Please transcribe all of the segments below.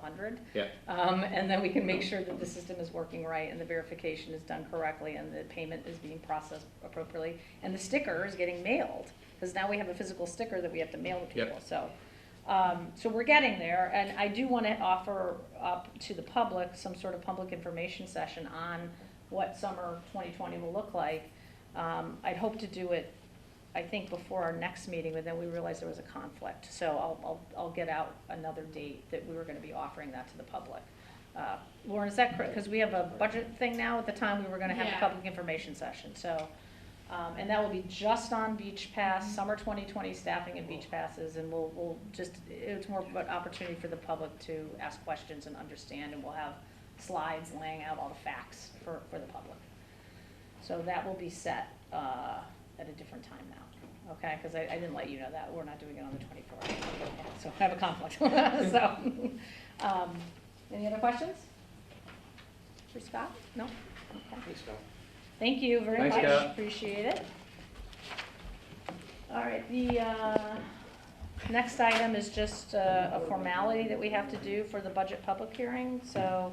hundred. Yeah. Um, and then we can make sure that the system is working right and the verification is done correctly and the payment is being processed appropriately. And the sticker is getting mailed, because now we have a physical sticker that we have to mail to Yep. people, so. Um, so we're getting there, and I do wanna offer up to the public some sort of public information session on what summer twenty twenty will look like. Um, I'd hope to do it, I think, before our next meeting, but then we realized there was a conflict. So I'll, I'll, I'll get out another date that we were gonna be offering that to the public. Uh, Lauren, is that correct? Because we have a budget thing now, at the time, we were gonna have a Yeah. public information session, so. Um, and that will be just on beach pass, summer twenty twenty staffing and beach passes, and we'll, we'll just, it's more of an opportunity for the public to ask questions and understand, and we'll have slides laying out all the facts for, for the public. So that will be set, uh, at a different time now, okay? Cause I, I didn't let you know that, we're not doing it on the twenty-fourth, so I have a conflict, so. Um, any other questions? For Scott? No? Okay. Thanks, Scott. Thank you very Thanks, much, Kat. appreciate it. All right, the, uh, next item is just uh, a formality that we have to do for the budget public hearing, so,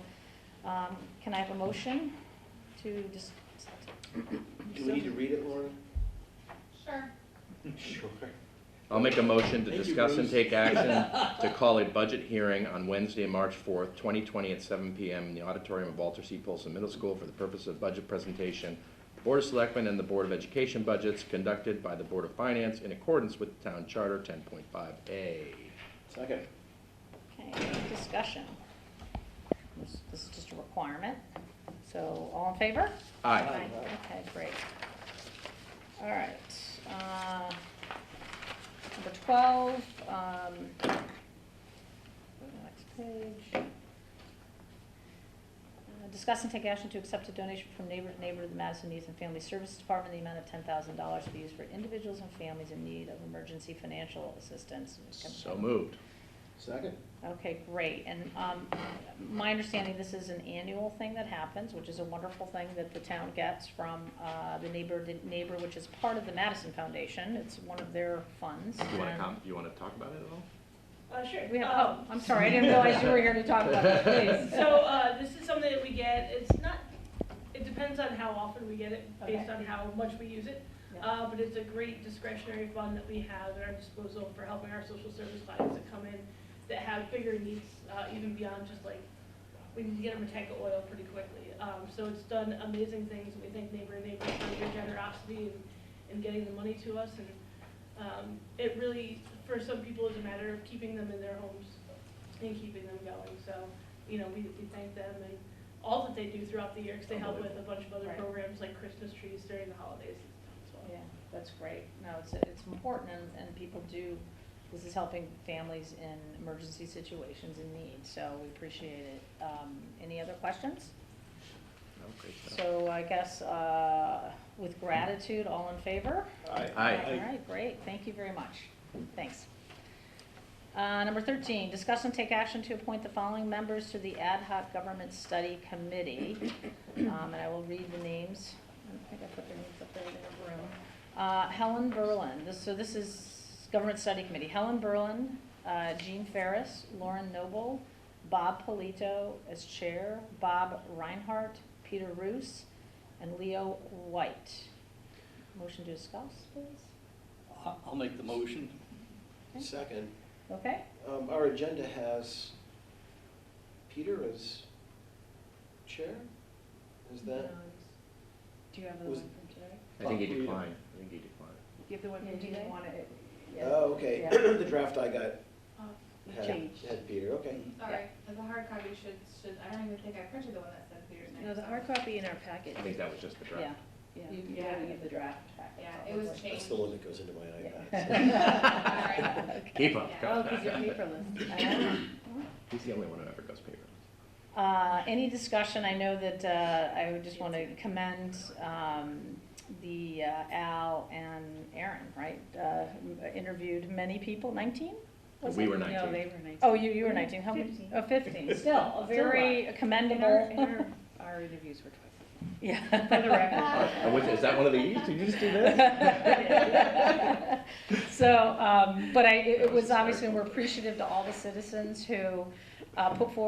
um, can I have a motion to just? Do we need to read it, Lauren? Sure. Sure. I'll make a motion to Thank you, discuss and Bruce. take action to call a budget hearing on Wednesday, March fourth, twenty twenty at seven PM in the auditorium of Walter C. Polson Middle School for the purpose of budget presentation. Board of Selectmen and the Board of Education budgets conducted by the Board of Finance in accordance with the Town Charter ten point five A. Second. Okay, discussion. This this is just a requirement, so all in favor? Aye. Aye. Okay, great. All right, uh, number twelve, um, go to the next page. Uh, Discuss and take action to accept a donation from Neighbor to Neighbor to the Madison Youth and Family Services Department, in the amount of ten thousand dollars to be used for individuals and families in need of emergency financial assistance. So moved. Second. Okay, great, and, um, my understanding, this is an annual thing that happens, which is a wonderful thing that the town gets from, uh, the neighbor, the neighbor, which is part of the Madison Foundation, it's one of their funds. You wanna and- com, you wanna talk about it at all? Uh, sure. We have, Um, oh, I'm sorry, I didn't realize you were here to talk about it, please. So, uh, this is something that we get, it's not, it depends on how often we get it, based Okay. on how much we use it. Yeah. Uh, but it's a great discretionary fund that we have at our disposal for helping our social service clients that come in that have bigger needs, uh, even beyond just like, we need to get them a tank of oil pretty quickly. Um, so it's done amazing things, and we thank neighbor and neighbor for their generosity in, in getting the money to us. And, um, it really, for some people, is a matter of keeping them in their homes and keeping them going. So, you know, we, we thank them and all that they do throughout the year, because they help with a bunch of other Right. programs like Christmas trees during the holidays and stuff as Yeah, well. that's great, no, it's, it's important, and, and people do, this is helping families in emergency situations in need, so we appreciate it. Um, any other questions? Okay, So I guess, uh, with gratitude, all in favor? Aye. Aye. All right, great, thank you very much, thanks. Uh, number thirteen, discuss and take action to appoint the following members to the Ad hoc Government Study Committee. Um, and I will read the names, I don't think I put their names up there in the room. Uh, Helen Berlin, this, so this is Government Study Committee, Helen Berlin, uh, Jean Ferris, Lauren Noble, Bob Polito as chair, Bob Reinhardt, Peter Roos, and Leo White. Motion to discuss, please? I'll I'll make the motion. Second. Okay, Um, our agenda has Peter as chair? Is that? Do you have Was- from today? I think he declined, I think he declined. Do you have the one Yeah, do you they? want it? Oh, okay. Yeah. The draft I got Oh, had, Changed. had Peter, okay. Sorry, the hard copy should, should, I don't even think I printed the one that said Peter's name. No, the so- hard copy in our packet. I think that was just the yeah, draft. Yeah. You- you Yeah. gotta get the draft back. Yeah, it was probably. That's changed. the one that goes into my iPad. Yeah. Keep up, Yeah. Oh, because you're paperless. He's the only one who ever goes paper. Uh, any discussion, I know that, uh, I would just want to commend, um, the uh, Al and Aaron, right? Uh, interviewed many people, nineteen? was We it? were No, nineteen. they were nineteen. Oh, you, you were nineteen, how many? Fifteen. Oh, fifteen, still, Still a very And our, commendable. and our, our interviews were twice. Yeah. For the record. Oh, was- Is that one of these? Did you just do this? So, um, but I, it- it That was was obviously, hysterical. we're appreciative to all the citizens who, uh, put forward